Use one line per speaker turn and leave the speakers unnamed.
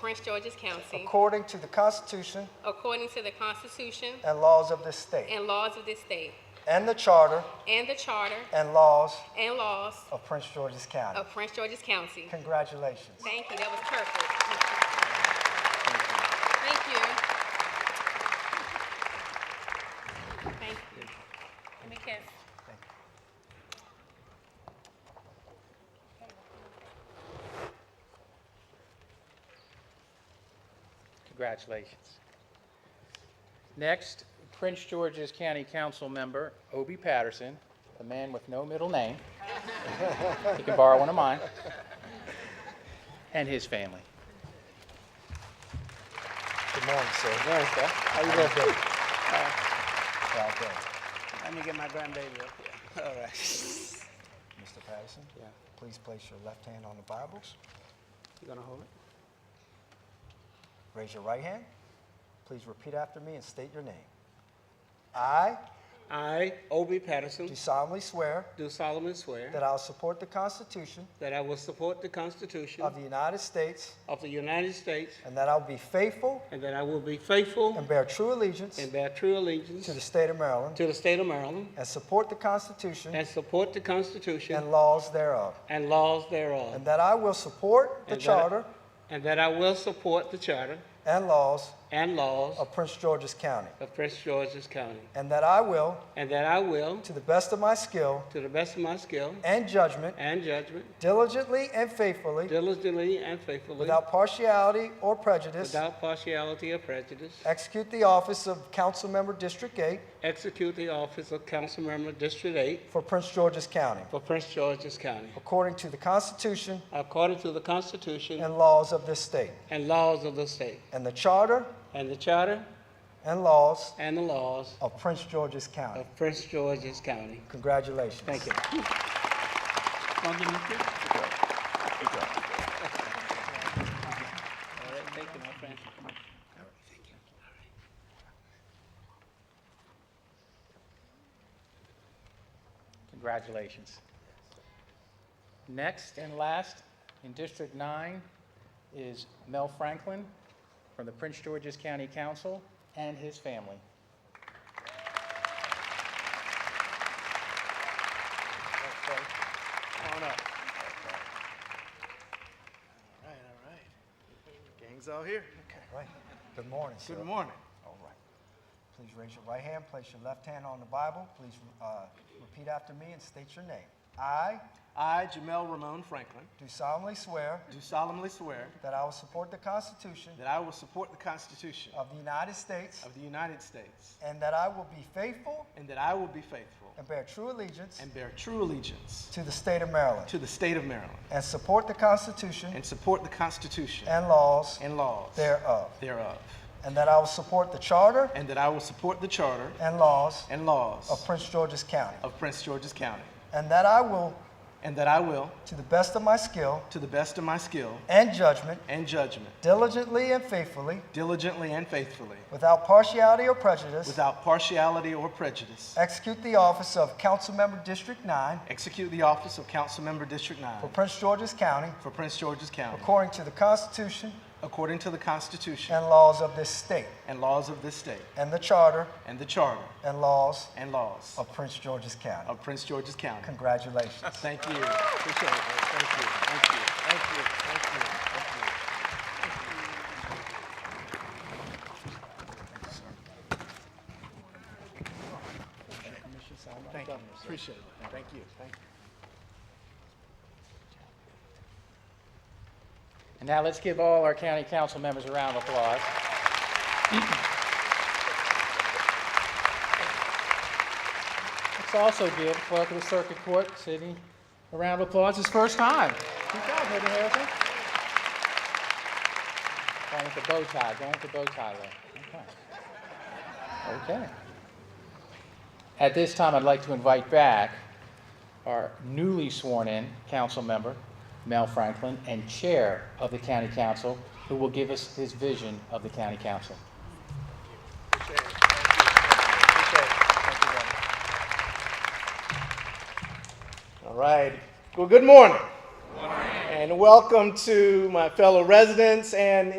Prince George's County,
according to the Constitution
according to the Constitution
and laws of this state,
and laws of this state,
and the Charter
and the Charter
and laws
and laws
of Prince George's County.
of Prince George's County.
Congratulations.
Thank you, that was perfect. Thank you. Thank you. Give me a kiss.
Congratulations. Next, Prince George's County Council Member Obie Patterson, the man with no middle name. He can borrow one of mine. And his family.
Good morning, sir. Proud day,
Uh, Let me get my grandbaby up here. All right.
Mr. Patterson,
Yeah.
please place your left hand on the Bibles.
You gonna hold it?
Raise your right hand. Please repeat after me and state your name. I
I, Obie Patterson,
do solemnly swear
do solemnly swear
that I will support the Constitution
that I will support the Constitution
of the United States
of the United States
and that I will be faithful
and that I will be faithful
and bear true allegiance
and bear true allegiance
to the state of Maryland
to the state of Maryland
and support the Constitution
and support the Constitution
and laws thereof.
and laws thereof.
And that I will support the
And that-
Charter
And that I will support the charter
and laws
and laws
of Prince George's County.
of Prince George's County.
And that I will,
And that I will,
to the best of my skill
to the best of my skill
and judgment,
and judgment,
diligently and faithfully,
diligently and faithfully,
without partiality or prejudice,
without partiality or prejudice,
execute the office of Council Member District 8
Execute the office of council member District 8
for Prince George's County,
for Prince George's County,
according to the Constitution
according to the Constitution
and laws of this state,
and laws of the state,
and the Charter
and the charter
and laws
and the laws
of Prince George's County.
of Prince George's County.
Congratulations.
Thank you. Wanna give me a kiss? All right, thank you, my friend. All right, thank you. All right.
Congratulations. Next and last, in District 9, is Mel Franklin from the Prince George's County Council and his family.
Come on up. All right, all right. Gang's all here.
All right. Good morning, sir.
Good morning.
All right. Please raise your right hand, place your left hand on the Bible. Please uh, repeat after me and state your name. I
I, Jamel Ramon Franklin,
do solemnly swear
do solemnly swear
that I will support the Constitution
that I will support the Constitution
of the United States
of the United States
and that I will be faithful
and that I will be faithful
and bear true allegiance
and bear true allegiance
to the state of Maryland
to the state of Maryland
and support the Constitution
and support the Constitution
and laws
and laws
thereof,
thereof,
and that I will support the Charter
and that I will support the charter
and laws
and laws
of Prince George's County,
of Prince George's County,
and that I will,
and that I will,
to the best of my skill
to the best of my skill
and judgment,
and judgment,
diligently and faithfully,
diligently and faithfully,
Without partiality or prejudice.
without partiality or prejudice,
Execute the office of Councilmember District 9
Execute the office of Councilmember District 9
for Prince George's County
for Prince George's County,
according to the Constitution
according to the Constitution
and laws of this state
and laws of this state,
and the Charter
and the Charter
and laws
and laws
of Prince George's County.
of Prince George's County.
Congratulations.
Thank you. Appreciate it. Thank you. Thank you. Thank you. Thank you. Thank you. Thank you. Appreciate it. Thank you. Thank you.
And now let's give all our county council members a round of applause. Let's also give clerk of the circuit court, Sidney, a round of applause, his first time. Good job, Lady Harrison. Going with the bow tie, going with the bow tie there. Okay. Okay. At this time, I'd like to invite back our newly sworn-in council member, Mel Franklin, and Chair of the County Council, who will give us his vision of the County Council.
All right. Well, good morning. And welcome to my fellow residents and